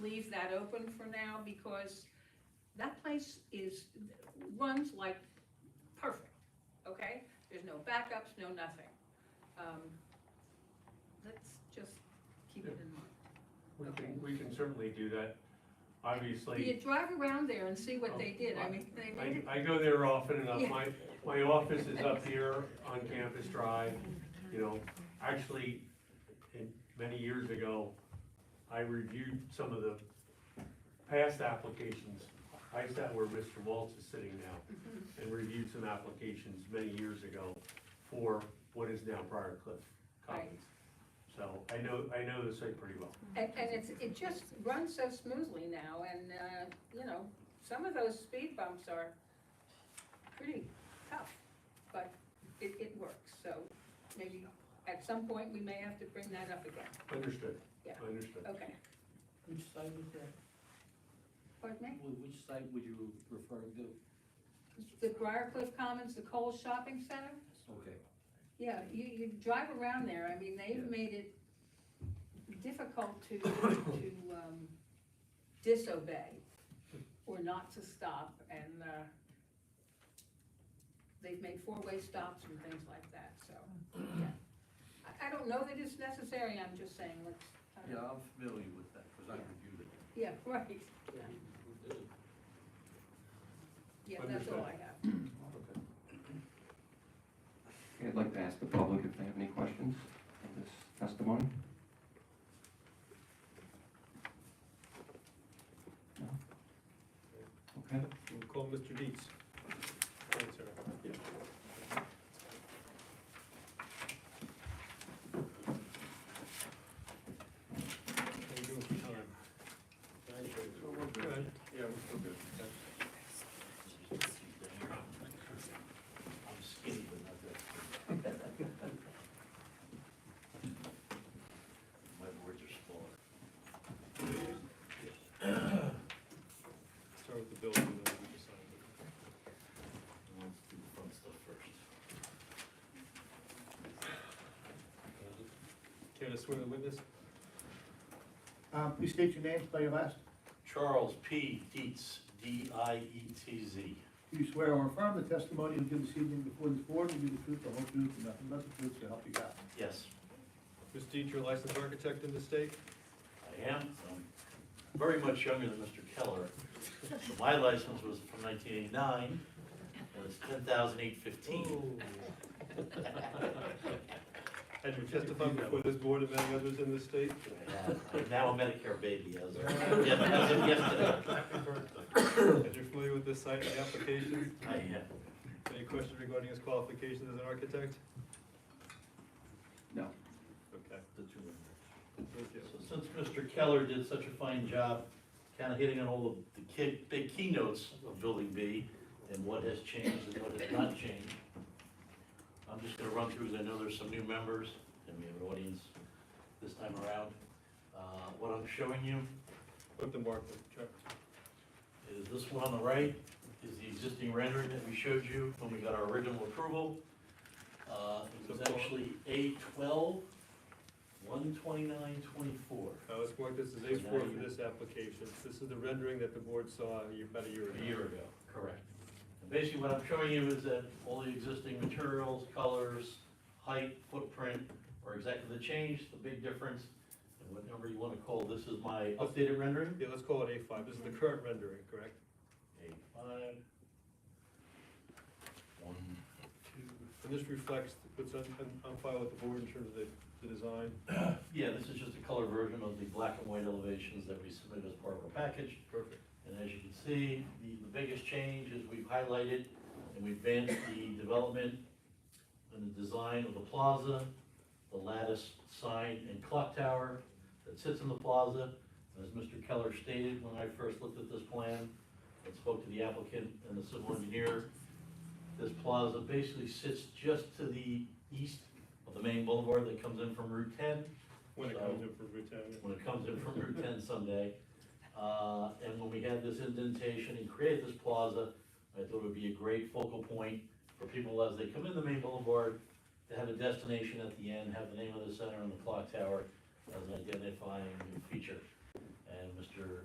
leave that open for now because that place is, runs like perfect, okay? There's no backups, no nothing. Um, Let's just keep it in mind. We Okay. can, we can certainly do that. You Obviously, drive around there and see what they did, I mean, they made I, I it, go there often enough. Yeah. My, my office is up here on Campus Drive, you know. Actually, in, many years ago, I reviewed some of the past applications. I sat where Mr. Waltz is sitting Mm-hmm. now and reviewed some applications many years ago for what is now Briar Cliff Commons. So I know, I know the site pretty well. and, and it's, it just runs so smoothly now, and, uh, you know, some of those speed bumps are pretty tough, but it, it works, so maybe at some point, we may have to bring that up again, Understood, Yeah. understood. okay? Which site was that? Pardon me? Wh- Which site would you refer to? The Briarcliff Commons, the Cole Shopping Center, Okay. yeah, you, you drive around there, I mean, they've Yeah. made it difficult to, to, um, disobey or not to stop, and, uh, they've made four-way stops and things like that, so, yeah. I, I don't know that it's necessary, I'm just saying, let's, I don't- Yeah, I'm familiar with that, because I Yeah. reviewed it. yeah, right, yeah, that's all I have. Okay. Okay, I'd like to ask the public if they have any questions on this testimony. No? Okay, We'll call Mr. Dietz. Thanks, sir. How you doing for time? Good. Yeah, we're still good. I'm skinny, but not that. My words are small. Start with the building, and then we can sign it. I want to do the fun stuff first. Care to swear to witness? Uh, Please state your name, spell your last. Charles P. Dietz, E D-I-E-T-Z. Do you swear or affirm the testimony you give this evening before this board will be the truth, the whole truth, and nothing but the truth, so help you God? Yes, Mr. Dietz, you're a licensed architect in the state? I am. I'm very much younger than Mr. Keller. My license was from 1989, and it's 10,815. And you testified before this board and many others in the state? Yeah, I'm Now a Medicare baby, as of yes- as of yesterday. And you're familiar with this site and the applications? I am. Any questions regarding his qualifications as an architect? no. Okay, The two of them. thank you. So since Mr. Keller did such a fine job, kind of hitting on all of the key, big keynotes of Building B and what has changed and what has not changed, I'm just gonna run through, because I know there's some new members, and we have an audience this time around. Uh, what I'm showing you Put the mark, check. is this one on the right, is the existing rendering that we showed you when we got our original approval. Uh, it was actually A twelve, one twenty-nine, twenty-four. Uh, let's mark this as A four for this application. This is the rendering that the board saw a year- about a year ago. a year ago. Correct. And Basically, what I'm showing you is that all the existing materials, colors, height, footprint are exactly the change, the big difference, and whatever you wanna call, this is my updated rendering. Yeah, let's call it A five. This is the current rendering, correct? Eight, five. One, two. And this reflects what's on, on- on file with the board in terms of the, the design. Yeah, this is just a color version of the black and white elevations that we submitted as part of our package. Perfect. And as you can see, the, the biggest change is we've highlighted and we've advanced the development and the design of the plaza, the lattice sign and clock tower that sits in the plaza. As Mr. Keller stated, when I first looked at this plan and spoke to the applicant and the civil engineer, this plaza basically sits just to the east of the main boulevard that comes in from Route ten When it comes in for Route when it comes in from Route ten someday. Uh, and when we had this indentation and created this plaza, I thought it would be a great focal point for people as they come in the main boulevard to have a destination at the end, have the name of the center and the clock tower as an identifying feature. and Mr.